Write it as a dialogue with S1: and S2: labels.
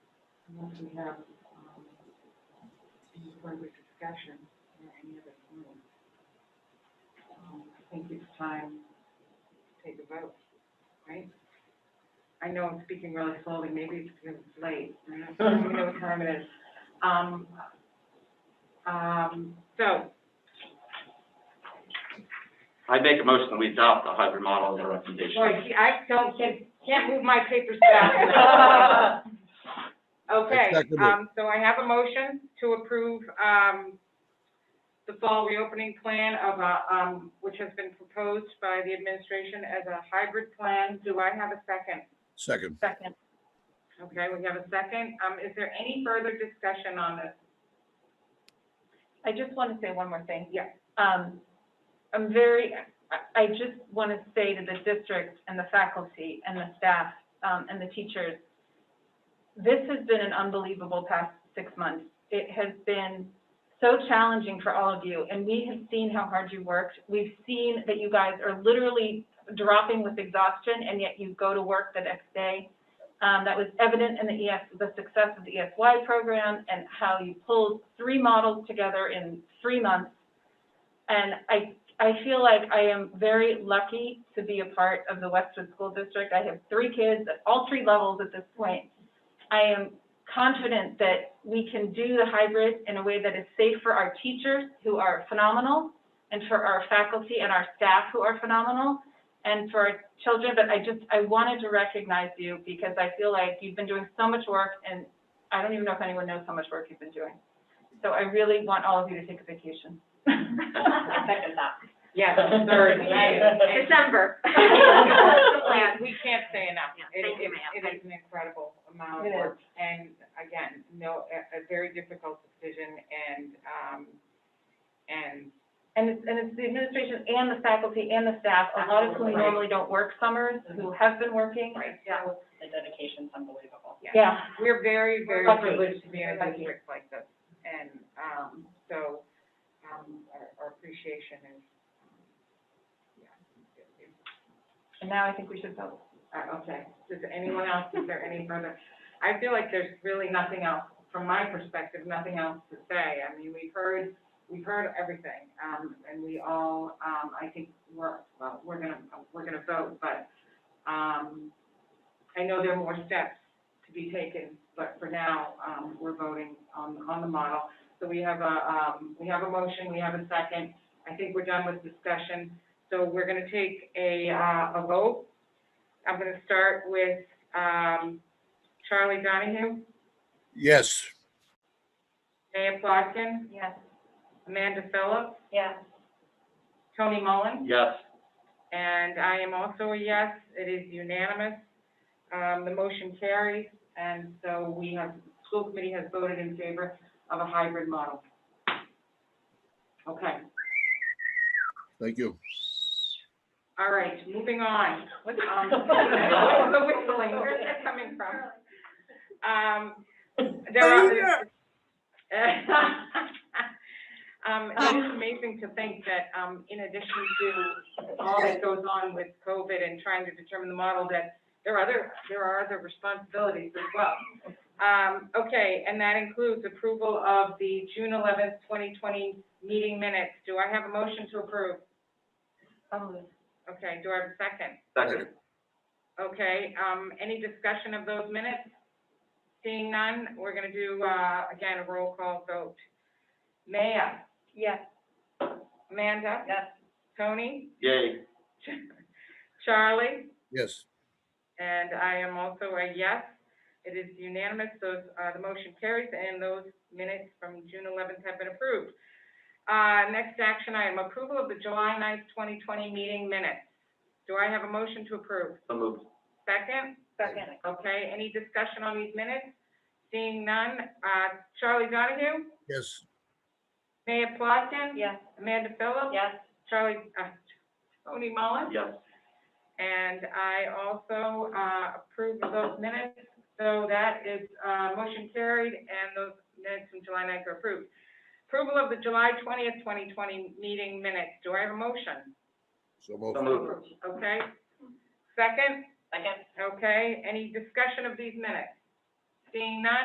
S1: And then we have, um, any further discussion or any other comments. Um, I think it's time to take a vote, right? I know I'm speaking really slowly, maybe it's because it's late, I don't even know what time it is. Um, um, so,
S2: I make a motion that we adopt the hybrid model as a recommendation.
S1: boy, see, I don't, can't, can't move my papers fast. Okay,
S3: I second it.
S1: um, so I have a motion to approve, um, the fall reopening plan of, a, um, which has been proposed by the administration as a hybrid plan. Do I have a second?
S3: Second.
S4: Second.
S1: Okay, we have a second. Um, is there any further discussion on this?
S4: I just want to say one more thing.
S1: Yeah.
S4: Um, I'm very, I- I just want to say to the district and the faculty and the staff um, and the teachers, this has been an unbelievable past six months. It has been so challenging for all of you, and we have seen how hard you worked. We've seen that you guys are literally dropping with exhaustion, and yet you go to work the next day. Um, that was evident in the ES, the success of the ESY program and how you pulled three models together in three months. And I, I feel like I am very lucky to be a part of the Westwood School District. I have three kids at all three levels at this point. I am confident that we can do the hybrid in a way that is safe for our teachers, who are phenomenal, and for our faculty and our staff, who are phenomenal, and for our children, but I just, I wanted to recognize you because I feel like you've been doing so much work and I don't even know if anyone knows how much work you've been doing. So I really want all of you to take a vacation.
S5: second that.
S1: Yes, third,
S5: December.
S1: And We can't say enough.
S5: Yeah,
S1: It-
S5: thank you,
S1: it-
S5: ma'am.
S1: It is an incredible amount of
S4: It is.
S1: work, and again, no, a, a very difficult decision, and, um, and,
S4: And it's, and it's the administration and the faculty and the staff, a lot of whom
S1: Absolutely.
S4: normally don't work summers, who have been working.
S1: right,
S5: Yeah.
S1: so,
S5: The dedication's unbelievable.
S4: Yeah,
S1: we're very, very
S4: lucky.
S1: privileged to be in
S4: We're
S1: a
S4: lucky.
S1: district like this, and, um, so, um, our, our appreciation is, um, yeah. it- it-
S4: and now I think we should vote.
S1: Uh, okay, does anyone else, is there any further? I feel like there's really nothing else, from my perspective, nothing else to say. I mean, we've heard, we've heard everything, um, and we all, um, I think we're, well, we're gonna, we're gonna vote, but, um, I know there are more steps to be taken, but for now, um, we're voting on, on the model. So we have a, um, we have a motion, we have a second. I think we're done with discussion, so we're gonna take a, uh, a vote. I'm gonna start with, um, Charlie Donahue,
S3: Yes.
S1: Maya Plotkin,
S4: Yes.
S1: Amanda Phillips,
S4: Yes.
S1: Tony Mullin,
S2: Yes,
S1: and I am also a yes, it is unanimous. Um, the motion carries, and so we have, school committee has voted in favor of a hybrid model. Okay,
S3: Thank you.
S1: all right, moving on. Um, the whistling, where's that coming from? Um, there are. Um, it's amazing to think that, um, in addition to all that goes on with COVID and trying to determine the model, that there are other, there are other responsibilities as well. Um, okay, and that includes approval of the June eleventh, twenty twenty meeting minutes. Do I have a motion to approve?
S4: Um,
S1: Okay, do I have a second?
S2: second,
S1: Okay, um, any discussion of those minutes? Seeing none, we're gonna do, uh, again, a roll call vote. Maya,
S4: Yes.
S1: Amanda,
S4: Yes.
S1: Tony,
S2: yay,
S1: Charlie,
S3: Yes.
S1: and I am also a yes. It is unanimous, those, uh, the motion carries, and those minutes from June eleventh have been approved. Uh, next action item, approval of the July 9th, twenty twenty meeting minutes. Do I have a motion to approve?
S2: so moved.
S1: Second?
S4: Second.
S1: Okay, any discussion on these minutes? Seeing none, uh, Charlie Donahue,
S3: Yes.
S1: Maya Plotkin?
S4: Yes.
S1: Amanda Phillips?
S4: Yes.
S1: Charlie, uh, Tony Mullin?
S2: Yes,
S1: And I also, uh, approve of those minutes, so that is, uh, motion carried, and those minutes from July 9th are approved. Approval of the July twentieth, twenty twenty meeting minutes, do I have a motion?
S3: So
S2: so
S3: moved.
S2: moved.
S1: Okay, second,
S5: Second?
S1: okay, any discussion of these minutes? Seeing none,